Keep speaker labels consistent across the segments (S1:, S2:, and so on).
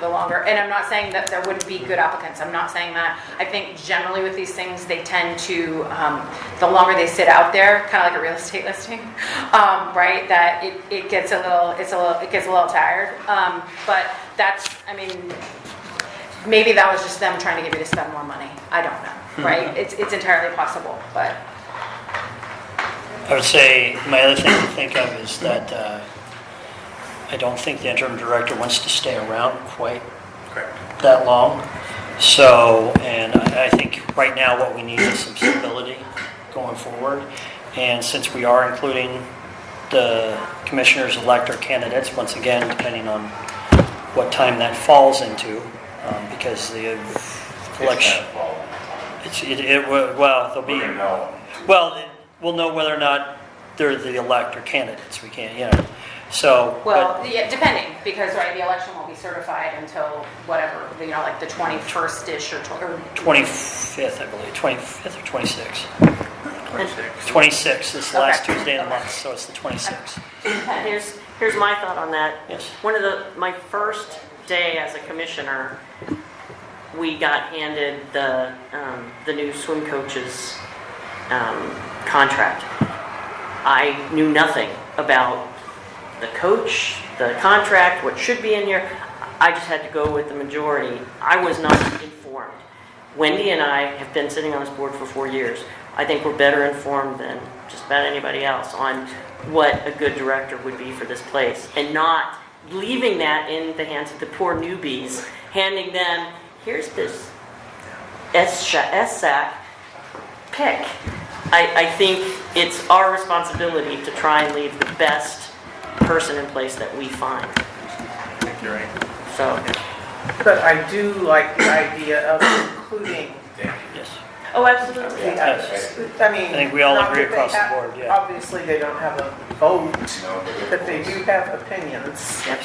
S1: the longer, and I'm not saying that there wouldn't be good applicants, I'm not saying that. I think generally with these things, they tend to, um, the longer they sit out there, kind of like a real estate listing, um, right, that it, it gets a little, it's a little, it gets a little tired. Um, but that's, I mean, maybe that was just them trying to get me to spend more money, I don't know, right? It's, it's entirely possible, but,
S2: I would say, my other thing to think of is that uh, I don't think the interim director wants to stay around quite
S3: Correct.
S2: that long. So, and I I think right now what we need is some stability going forward. And since we are including the commissioners elect or candidates, once again, depending on what time that falls into, um, because the election, it's, it, it wa- well, there'll be.
S3: We're gonna know.
S2: Well, it- we'll know whether or not they're the elect or candidates, we can't, you know, so.
S1: well, yeah, depending, because, right, the election won't be certified until whatever, you know, like the 21st-ish or 20
S2: but 25th, I believe, 25th or 26th?
S3: 26.
S2: 26th, this last
S1: Okay.
S2: Tuesday of the month, so it's the 26th.
S4: Here's, here's my thought on that.
S2: Yes.
S4: One of the, my first day as a commissioner, we got handed the, um, the new swim coaches, um, contract. I knew nothing about the coach, the contract, what should be in here. I just had to go with the majority. I was not informed. Wendy and I have been sitting on this board for four years. I think we're better informed than just about anybody else on what a good director would be for this place and not leaving that in the hands of the poor newbies, handing them, here's this SSAC, pick. I, I think it's our responsibility to try and leave the best person in place that we find.
S3: I think you're right.
S4: So,
S5: But I do like the idea of including
S2: Yes,
S4: oh, absolutely.
S5: the others. I mean.
S2: I think we all
S5: not
S2: agree
S5: that they
S2: across the
S5: have-
S2: board, yeah.
S5: Obviously, they don't have a vote,
S3: No, but-
S5: but they do have opinions.
S4: Yep,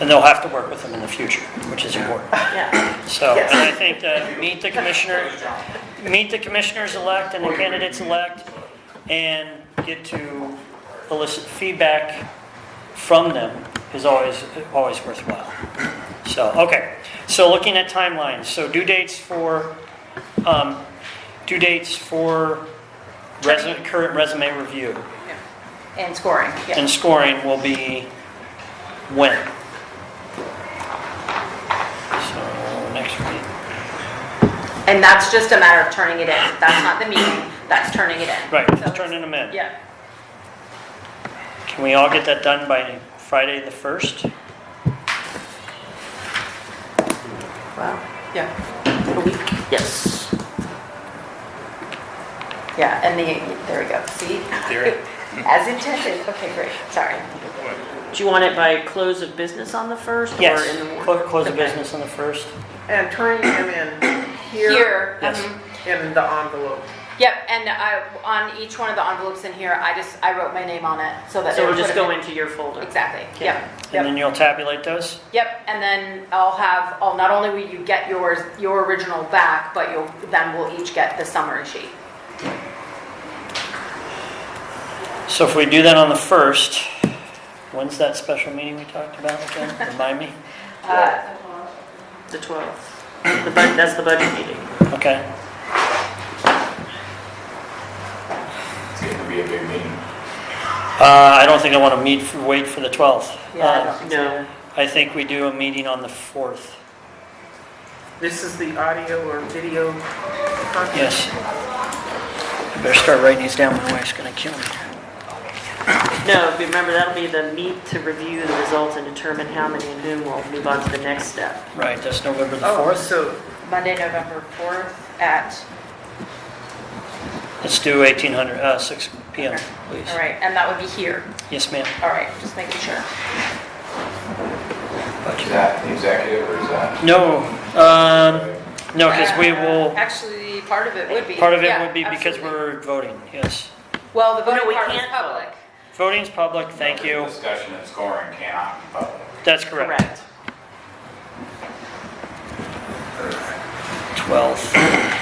S2: and they'll have to work with them in the future, which is important.
S4: yeah.
S2: So,
S5: Yes.
S2: and I think that meet the commissioner, meet the commissioners-elect and the candidates-elect, and get to elicit feedback from them is always, always worthwhile. So, okay, so looking at timelines, so due dates for, um, due dates for resume, current resume review
S1: and scoring, yeah.
S2: and scoring will be when? So, next week.
S1: And that's just a matter of turning it in. That's not the meeting, that's turning it in.
S2: Right,
S1: So
S2: just
S1: it's-
S2: turning them in.
S1: Yeah,
S2: Can we all get that done by Friday the 1st?
S4: Wow.
S1: yeah,
S4: A week, yes.
S1: yeah, and the, there we go, see?
S3: Theory.
S1: As intended, okay, great, sorry.
S4: Do you want it by close of business on the first or
S2: Yes,
S4: in the morning?
S2: clo- close the
S1: Okay.
S2: business on the 1st.
S5: And turning them in here
S1: Here,
S2: Yes.
S1: mhm.
S5: in the envelope.
S1: yep, and I, on each one of the envelopes in here, I just, I wrote my name on it so that.
S4: So
S1: it
S4: it'll
S1: would
S4: just
S1: put
S4: go
S1: it-
S4: into your folder.
S1: Exactly,
S4: Okay.
S1: yep,
S2: And
S1: yep,
S2: then you'll tabulate those?
S1: yep, and then I'll have, I'll, not only will you get yours, your original back, but you'll, then we'll each get the summary sheet.
S2: So if we do that on the 1st, when's that special meeting we talked about again? Remind me?
S1: Uh,
S4: The 12th. The bud, that's the budget meeting.
S2: Okay.
S3: It's gonna be a big meeting.
S2: Uh, I don't think I want to meet, for- wait for the 12th.
S1: Yeah, I
S2: Uh,
S1: don't-
S4: No,
S2: I think we do a meeting on the 4th.
S5: This is the audio or video content.
S2: Yes. I Better start writing these down, my wife's going to kill me.
S4: no, remember, that'll be the meet to review the results and determine how many and whom will move on to the next step.
S2: Right, that's November the
S5: Oh,
S2: 4th.
S5: so
S1: Monday, November 4th at
S2: Let's do 1800, uh, 6 PM, please.
S1: All right, and that would be here.
S2: Yes, ma'am.
S1: All right, just making sure.
S3: Is that the executive or is that?
S2: No, um, no, because we will,
S1: Uh, Actually, part of it would be.
S2: part of it
S1: yeah,
S2: would be because
S1: absolutely.
S2: we're voting, yes.
S1: Well, the
S4: No,
S1: voting
S4: we
S1: part is
S4: can't vote.
S1: public.
S2: Voting's public, thank you.
S3: Discussion and scoring cannot be public.
S2: That's correct.
S4: Correct.
S2: 12th.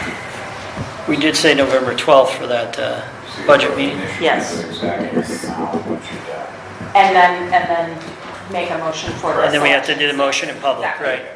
S2: We did say November 12th for that uh,
S3: So you're
S2: budget
S3: voting
S2: meeting.
S3: this
S4: Yes.
S3: year for Executive now, what you uh, got.
S1: And then, and then
S2: make a motion for the
S1: And then we have to
S2: selection.
S1: do the motion in public,
S2: Exactly.
S1: right?